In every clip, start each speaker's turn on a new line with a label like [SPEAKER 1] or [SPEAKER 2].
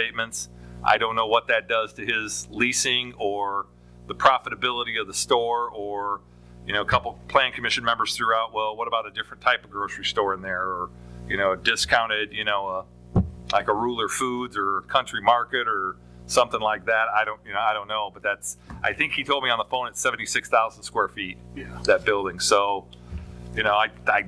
[SPEAKER 1] abatements. I don't know what that does to his leasing or the profitability of the store or, you know, a couple plan commission members threw out, well, what about a different type of grocery store in there or, you know, discounted, you know, uh, like a Ruler Foods or Country Market or something like that. I don't, you know, I don't know, but that's, I think he told me on the phone it's 76,000 square feet,
[SPEAKER 2] Yeah.
[SPEAKER 1] that building. So, you know, I, I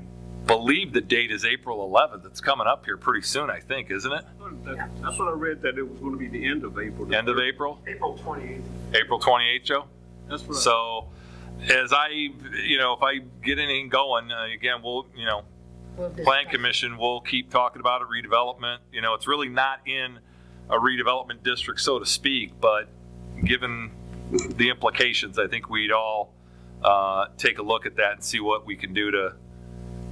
[SPEAKER 1] believe the date is April 11th. It's coming up here pretty soon, I think, isn't it?
[SPEAKER 2] That- That's what I read, that it was gonna be the end of April.
[SPEAKER 1] End of April?
[SPEAKER 2] April twenty-eighth.
[SPEAKER 1] April 28th, Joe?
[SPEAKER 2] That's what I.
[SPEAKER 1] So, as I, you know, if I get anything going, uh, again, we'll, you know,
[SPEAKER 3] We'll discuss.
[SPEAKER 1] plan commission, we'll keep talking about a redevelopment. You know, it's really not in a redevelopment district, so to speak, but given the implications, I think we'd all, uh, take a look at that and see what we can do to,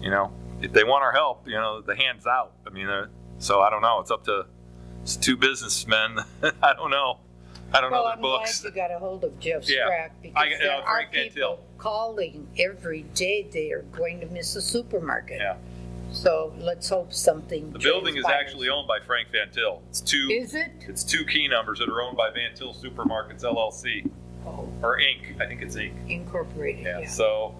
[SPEAKER 1] you know, if they want our help, you know, the hand's out. I mean, uh, so I don't know. It's up to, it's two businessmen. I don't know. I don't know
[SPEAKER 3] Well,
[SPEAKER 1] their
[SPEAKER 3] I'm glad
[SPEAKER 1] books.
[SPEAKER 3] you got a hold of Jeff
[SPEAKER 1] Yeah.
[SPEAKER 3] Strack
[SPEAKER 1] I-
[SPEAKER 3] because
[SPEAKER 1] you know,
[SPEAKER 3] there are
[SPEAKER 1] Frank Cantil.
[SPEAKER 3] people calling every day they are going to miss a supermarket.
[SPEAKER 1] Yeah.
[SPEAKER 3] So let's hope something.
[SPEAKER 1] The building is
[SPEAKER 3] transpires.
[SPEAKER 1] actually owned by Frank Van Til. It's two.
[SPEAKER 3] Is it?
[SPEAKER 1] It's two key numbers that are owned by Van Til Supermarkets LLC,
[SPEAKER 3] Oh,
[SPEAKER 1] or Inc. I think it's Inc.
[SPEAKER 3] incorporated,
[SPEAKER 1] Yeah,
[SPEAKER 3] yeah.
[SPEAKER 1] so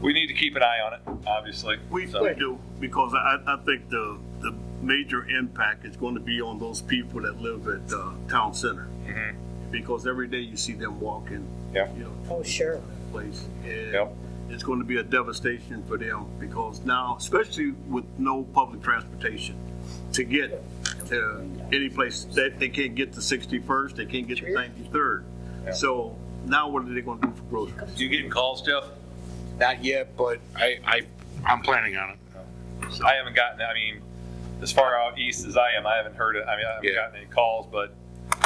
[SPEAKER 1] we need to keep an eye on it, obviously.
[SPEAKER 4] We
[SPEAKER 1] So-
[SPEAKER 4] we do, because I, I think the, the major impact is going to be on those people that live at, uh, town center.
[SPEAKER 1] Mhm.
[SPEAKER 4] Because every day you see them walking.
[SPEAKER 1] Yeah.
[SPEAKER 4] You know,
[SPEAKER 3] Oh, sure.
[SPEAKER 4] that place.
[SPEAKER 1] Yep.
[SPEAKER 4] And it's going to be a devastation for them because now, especially with no public transportation, to get to any place, they, they can't get to 61st, they can't get to
[SPEAKER 3] True.
[SPEAKER 4] 93rd.
[SPEAKER 1] Yeah.
[SPEAKER 4] So now what are they going to do for groceries?
[SPEAKER 1] You getting calls, Jeff?
[SPEAKER 5] Not yet, but I, I, I'm planning on it.
[SPEAKER 1] I haven't gotten, I mean, as far out east as I am, I haven't heard it. I mean, I haven't
[SPEAKER 5] Yeah.
[SPEAKER 1] gotten any calls, but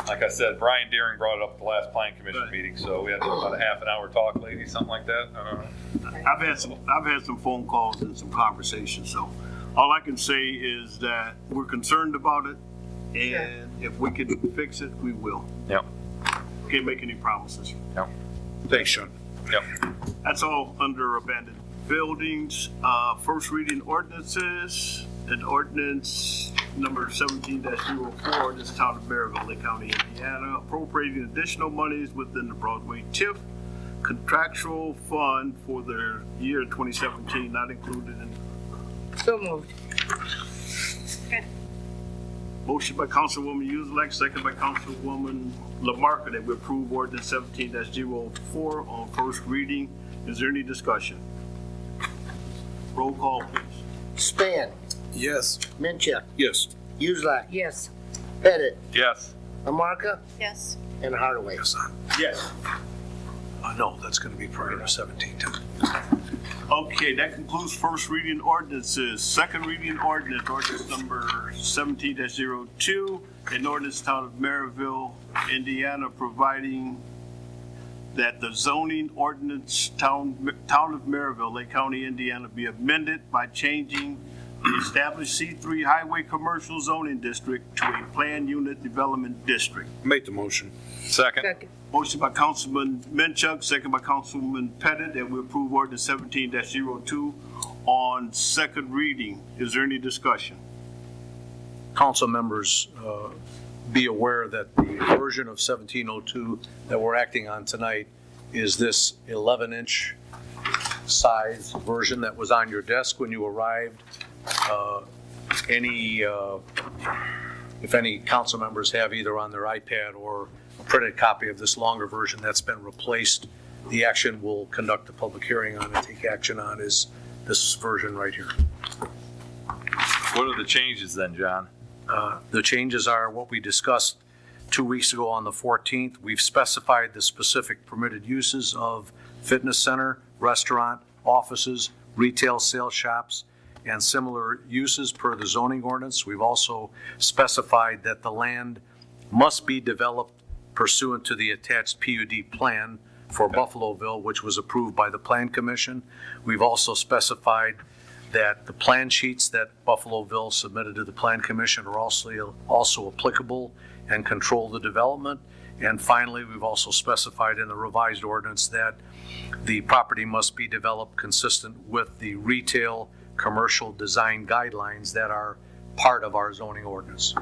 [SPEAKER 1] like I said, Brian Deering brought it up at the last plan commission
[SPEAKER 4] Right.
[SPEAKER 1] meeting, so we had about a half an hour talk, lady, something like that. I don't know.
[SPEAKER 4] I've had some, I've had some phone calls and some conversations, so all I can say is that we're concerned about it, and if we can fix it, we will.
[SPEAKER 1] Yep.
[SPEAKER 4] Can't make any promises.
[SPEAKER 5] Thanks, Sean.
[SPEAKER 1] Yep.
[SPEAKER 4] That's all under abandoned buildings. Uh, first reading ordinances, and ordinance number seventeen 4 this is town of Maryville, Lake County, Indiana, appropriating additional monies within the Broadway TIF contractual fund for the year twenty seventeen, not included in
[SPEAKER 3] So moved.
[SPEAKER 4] Motion by Councilwoman Uselak, second by Councilwoman Lamarcus, that we approve ordinance seventeen 4 on first reading. Is there any discussion? Roll call, please.
[SPEAKER 6] Span,
[SPEAKER 5] Yes.
[SPEAKER 6] Minchuck,
[SPEAKER 5] Yes.
[SPEAKER 6] Uselak,
[SPEAKER 3] Yes.
[SPEAKER 6] Pettit,
[SPEAKER 1] Yes,
[SPEAKER 6] Lamarcus,
[SPEAKER 7] Yes.
[SPEAKER 6] and Hardaway.
[SPEAKER 4] Yes.
[SPEAKER 5] I know, that's gonna be prior to seventeen ten.
[SPEAKER 4] Okay, that concludes first reading ordinances. Second reading ordinance, ordinance number seventeen 2 an ordinance town of Maryville, Indiana, providing that the zoning ordinance town, town of Maryville, Lake County, Indiana, be amended by changing the established C three highway commercial zoning district to a planned unit development district.
[SPEAKER 5] Make the motion.
[SPEAKER 1] second,
[SPEAKER 3] Second.
[SPEAKER 4] Motion by Councilman Menchuk, second by Councilman Pettit, that we approve ordinance seventeen 2 on second reading. Is there any discussion?
[SPEAKER 8] council members uh, be aware that the version of 1702 that we're acting on tonight is this 11-inch size version that was on your desk when you arrived. Uh, Any, uh, if any council members have either on their iPad or a printed copy of this longer version that's been replaced, the action we'll conduct a public hearing on and take action on is this version right here.
[SPEAKER 1] what are the changes then, John?
[SPEAKER 8] Uh, The changes are what we discussed two weeks ago on the 14th. We've specified the specific permitted uses of fitness center, restaurant, offices, retail sales shops, and similar uses per the zoning ordinance. We've also specified that the land must be developed pursuant to the attached PUD plan for Buffaloville, which was approved by the Plan Commission. We've also specified that the plan sheets that Buffaloville submitted to the Plan Commission are also, also applicable and control the development. And finally, we've also specified in the revised ordinance that the property must be developed consistent with the retail commercial design guidelines that are part of our zoning ordinance.